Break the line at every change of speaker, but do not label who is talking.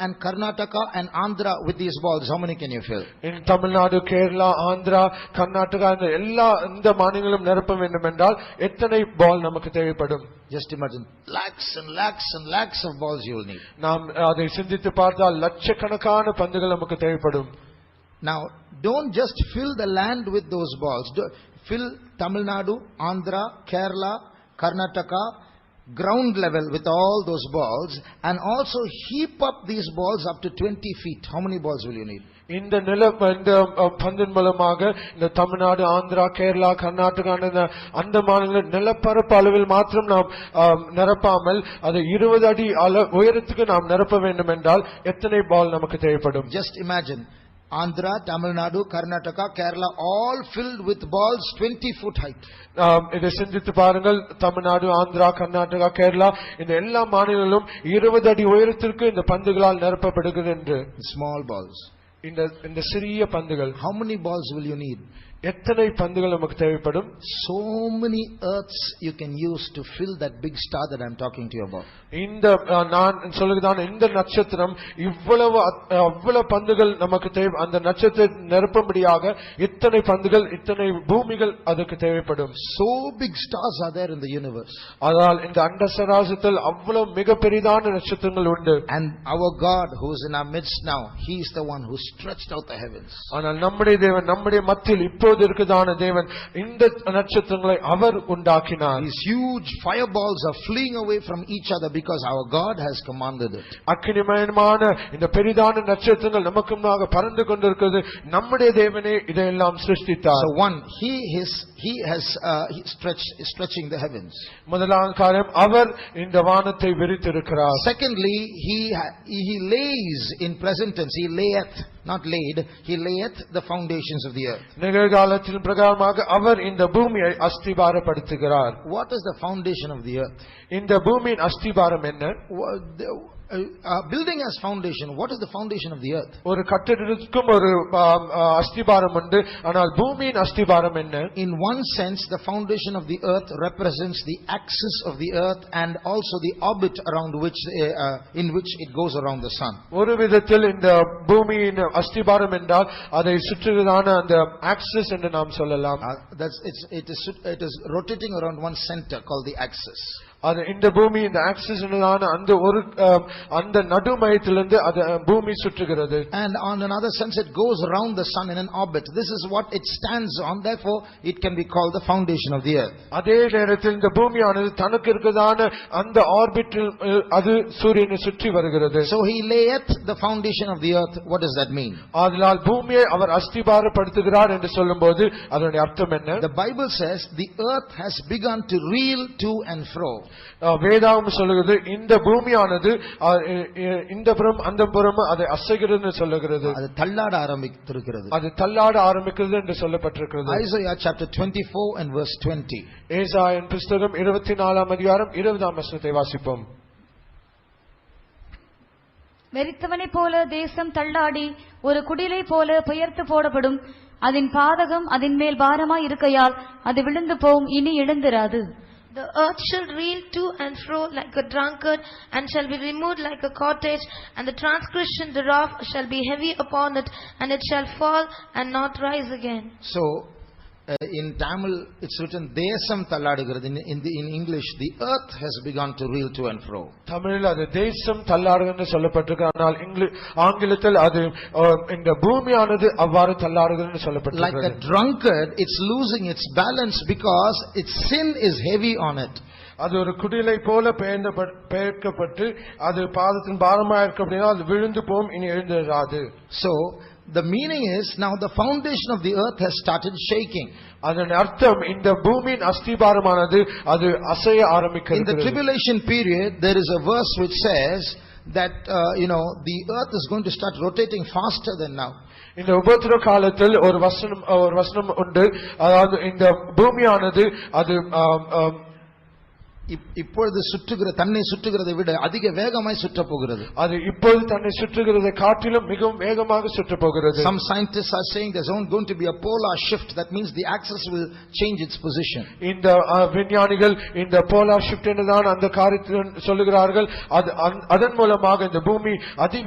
and Karnataka and Andhra with these balls, how many can you fill?
In Tamil Nadu, Kerala, Andhra, Karnataka இந்த எல்லா இந்த மாநிலங்களும் நிரப்ப வேண்டும் என்றால் எத்தனை பால் நமக்கு தேவைப்படும்
Just imagine, lakhs and lakhs and lakhs of balls you will need.
நாம் அதை சிந்தித்து பார்த்தால் லட்சக்கணக்கான பந்துகள் நமக்கு தேவைப்படும்
Now, don't just fill the land with those balls. Do- Fill Tamil Nadu, Andhra, Kerala, Karnataka, ground level with all those balls and also heap up these balls up to 20 feet. How many balls will you need?
இந்த நில இந்த அ, பந்தின் மூலமாக இந்த தமிழ்நாடு ஆந்திரா கேரளா கர்நாடகா இந்த அந்த மாநில நிலப்பரப்பு அளவில் மாத்திரம் நாம் அ, நிரப்பாமல் அதை இருபது அடி அள உயரத்துக்கு நாம் நிரப்ப வேண்டும் என்றால் எத்தனை பால் நமக்கு தேவைப்படும்
Just imagine, Andhra, Tamil Nadu, Karnataka, Kerala, all filled with balls 20 foot height.
நாம் இதை சிந்தித்து பாருங்கள் தமிழ்நாடு ஆந்திரா கர்நாடகா கேரளா இந்த எல்லா மாநிலங்களும் இருபது அடி உயரத்திற்கு இந்த பந்துகளால் நிரப்பப்படுகிறது என்று
Small balls.
இந்த இந்த சிறிய பந்துகள்
How many balls will you need?
எத்தனை பந்துகள் நமக்கு தேவைப்படும்
So many earths you can use to fill that big star that I'm talking to you about.
இந்த அஹ், நான் சொல்லுகிறதான் இந்த நட்சத்திரம் இவ்வளவு அத்- அவ்வளவு பந்துகள் நமக்கு தேவை அந்த நட்சத்திரம் நிரப்பும்படியாக இத்தனை பந்துகள் இத்தனை பூமிகள் அதுக்கு தேவைப்படும்
So big stars are there in the universe.
ஆனால் இந்த அண்ட சராசத்தில் அவ்வளவு மிக பெரிதான நட்சத்திரங்கள் உண்டு
And our God who is in our midst now, He is the one who stretched out the heavens.
ஆனால் நம்முடைய தேவன் நம்முடைய மத்தியில் இப்போது இருக்குதான தேவன் இந்த நட்சத்திரங்களை அவர் உண்டாக்கினார்
These huge fireballs are fleeing away from each other because our God has commanded it.
அக்கினிமயமான இந்த பெரிதான நட்சத்திரங்கள் நமக்கு முன்னாக பறந்து கொண்டிருக்கிறது நம்முடைய தேவனே இதையெல்லாம் சிருஷ்டித்தார்
So one, He is, He has uh, he stretched, stretching the heavens.
முதலாம் காரியம் அவர் இந்த வானத்தை விரித்திருக்கிறார்
Secondly, He, ha- he lays in present tense, He layeth, not laid, He layeth the foundations of the earth.
நிகழ்காலத்தின் பிரகாரமாக அவர் இந்த பூமியை அஸ்திபாரப்படுத்துகிறார்
What is the foundation of the earth?
இந்த பூமியின் அஸ்திபாரம் என்ன
Wha- the- uh, uh, Building as foundation, what is the foundation of the earth?
ஒரு கட்டிடத்திற்கும் ஒரு ஆம், ஆ, அஸ்திபாரம் உண்டு ஆனால் பூமியின் அஸ்திபாரம் என்ன
In one sense, the foundation of the earth represents the axis of the earth and also the orbit around which, uh, uh, in which it goes around the sun.
ஒரு விதத்தில் இந்த பூமியின் அஸ்திபாரம் என்றால் அதை சுற்றுகிறதான அந்த ஆக்சிஸ் என்று நாம் சொல்லலாம்
Uh, that's, it's, it, is, it is rotating around one center called the axis.
அது இந்த பூமி இந்த ஆக்சிஸ் என்றதான அந்த ஒரு ஆம், அந்த நடு மையத்திலிருந்து அது ஆ, பூமி சுற்றுகிறது
And on another sense, it goes around the sun in an orbit. This is what it stands on, therefore, it can be called the foundation of the earth.
அதே நேரத்தில் இந்த பூமியானது தனக்கு இருக்கிறதான அந்த ஆர்பிட்டில் அது சூரியனை சுற்றி வருகிறது
So he layeth the foundation of the earth. What does that mean?
அதனால் பூமியை அவர் அஸ்திபாரப்படுத்துகிறார் என்று சொல்லும்போது அதனுடைய அர்த்தம் என்ன
The Bible says the earth has begun to reel to and fro.
ஆ, வேதாகம் சொல்லுகிறது இந்த பூமியானது ஆ, இ- இ- இந்த புறம் அந்த புறம் அதை அசைகிறது சொல்லுகிறது
அது தள்ளாட ஆரம்பித்திருக்கிறது
அது தள்ளாட ஆரம்பிக்கிறது என்று சொல்லப்பட்டிருக்கிறது
Isaiah chapter 24 and verse 20.
Esayan புஸ்தகம் இருபத்தி நாலாம் அதிகாரம் இருபதாம் வசனத்தை வாசிப்போம்
வெறித்தவனைப் போல தேசம் தள்ளாடி ஒரு குடிலை போல பெயர்த்து போடப்படும் அதன் பாதகம் அதன் மேல் பாரமாய் இருக்கையால் அது விழுந்து போம் இனி எழுந்திராது
The earth shall reel to and fro like a drunkard, and shall be removed like a cottage, and the transgression thereof shall be heavy upon it, and it shall fall and not rise again.
So uh, in Tamil it's written தேசம் தள்ளாடுகிறது in in, the, in English the earth has begun to reel to and fro.
தமிழில் அது தேசம் தள்ளாடுகிறது என்று சொல்லப்பட்டிருக்கு ஆனால் இங்கிலி- ஆங்கிலத்தில் அது ஆ, இந்த பூமியானது அவ்வாறு தள்ளாடுகிறது என்று
Like a
சொல்லப்பட்டிருக்கிறது
drunkard it's losing its balance because its sin is heavy on it.
அது ஒரு குடிலை போல பெயர்ந்தப்பட்- பெயர்க்கப்பட்டு அது பாதத்தின் பாரமா இருக்கு அப்படின்னா அது விழுந்து போகும் இனி எழுந்துடாது
So the meaning is now the foundation of the earth has started shaking.
அதன் அர்த்தம் இந்த பூமியின் அஸ்திபாரமானது அது அசைய
In the
ஆரம்பிக்கிறது
tribulation period, there is a verse which says that, uh, you know, the earth is going to start rotating faster than now.
இந்த உபத்திர காலத்தில் ஒரு வசனம் ஒரு வசனம் உண்டு அதாவது இந்த பூமியானது அது ஆம், ஆம்,
இப்- இப்பொழுது சுற்றுகிற தன்னை சுற்றுகிறதை விட அதிக வேகமாய் சுற்றப் போகிறது
அது இப்போது தன்னை சுற்றுகிறதை காட்டிலும் மிகவும் வேகமாக சுற்றப் போகிறது
Some scientists are saying there's only going to be a polar shift. That means the axis will change its position.
இந்த ஆ, விஞ்ஞானிகள் இந்த போலார் ஷிப்ட் என்றுதான் அந்த காரியத்தில் சொல்லுகிறார்கள் அது அந்- அதன் மூலமாக இந்த பூமி அதி